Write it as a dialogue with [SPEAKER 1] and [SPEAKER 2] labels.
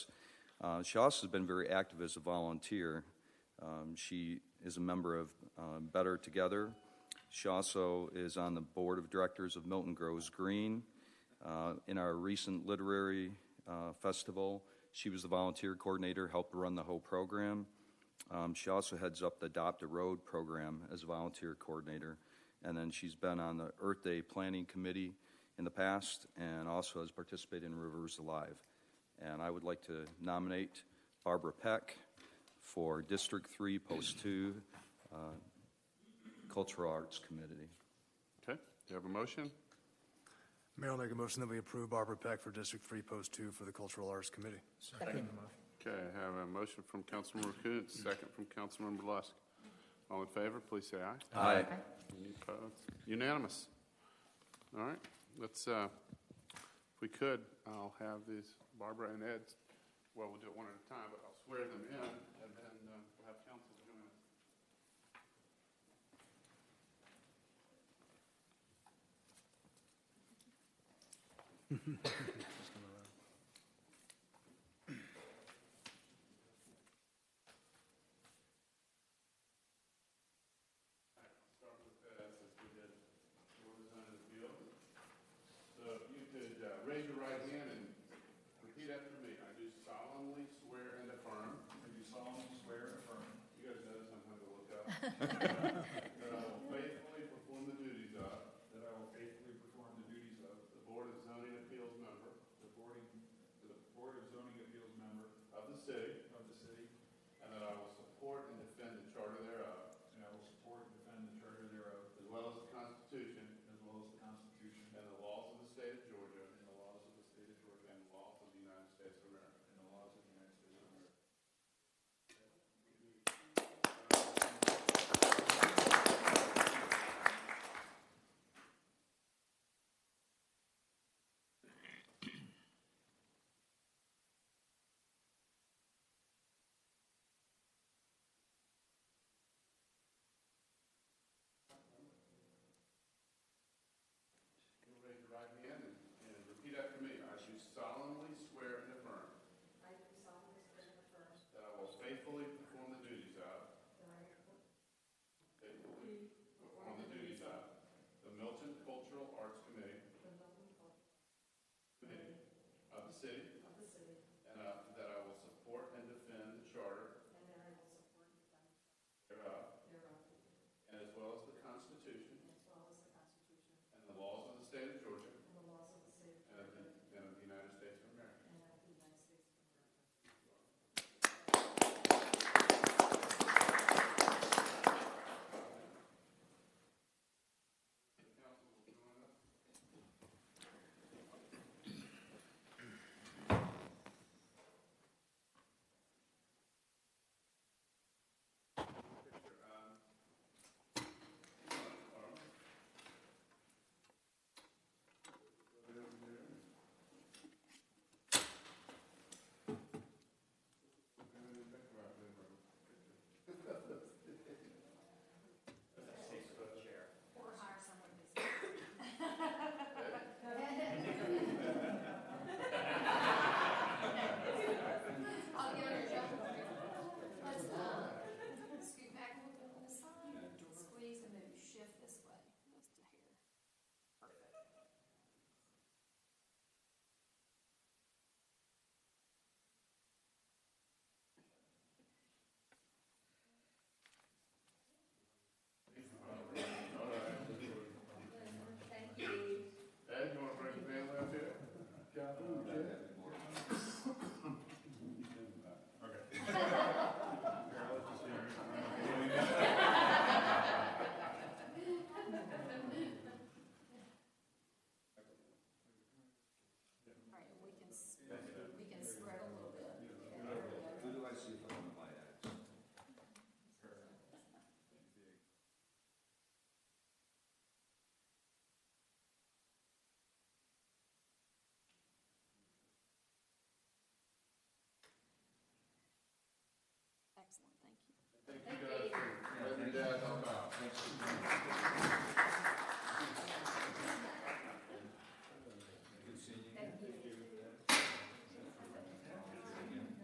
[SPEAKER 1] Uh, She also has been very active as a volunteer. Um, She is a member of uh, Better Together. She also is on the Board of Directors of Milton Grows Green. Uh, In our recent literary uh, festival, she was the volunteer coordinator, helped run the whole program. Um, She also heads up the Adopt a Road program as a volunteer coordinator. And then she's been on the Earth Day Planning Committee in the past and also has participated in Rivers Alive. And I would like to nominate Barbara Peck for District 3, Post 2, uh, Cultural Arts Committee.
[SPEAKER 2] Okay, do you have a motion?
[SPEAKER 3] Mayor, I'll make a motion that we approve Barbara Peck for District 3, Post 2 for the Cultural Arts Committee.
[SPEAKER 2] Okay, I have a motion from Councilmember Kuntz, second from Councilmember Lusk. All in favor, please say aye.
[SPEAKER 1] Aye.
[SPEAKER 2] Any opposed? Unanimous. All right, let's, uh, if we could, I'll have these, Barbara and Ed, well, we'll do it one at a time, but I'll swear them in, and then uh, we'll have council join us. Start with that, since we did orders under the field. So if you could uh, raise your right hand and repeat after me. I do solemnly swear and affirm. I do solemnly swear and affirm. You guys notice I'm going to look up. uh, uh,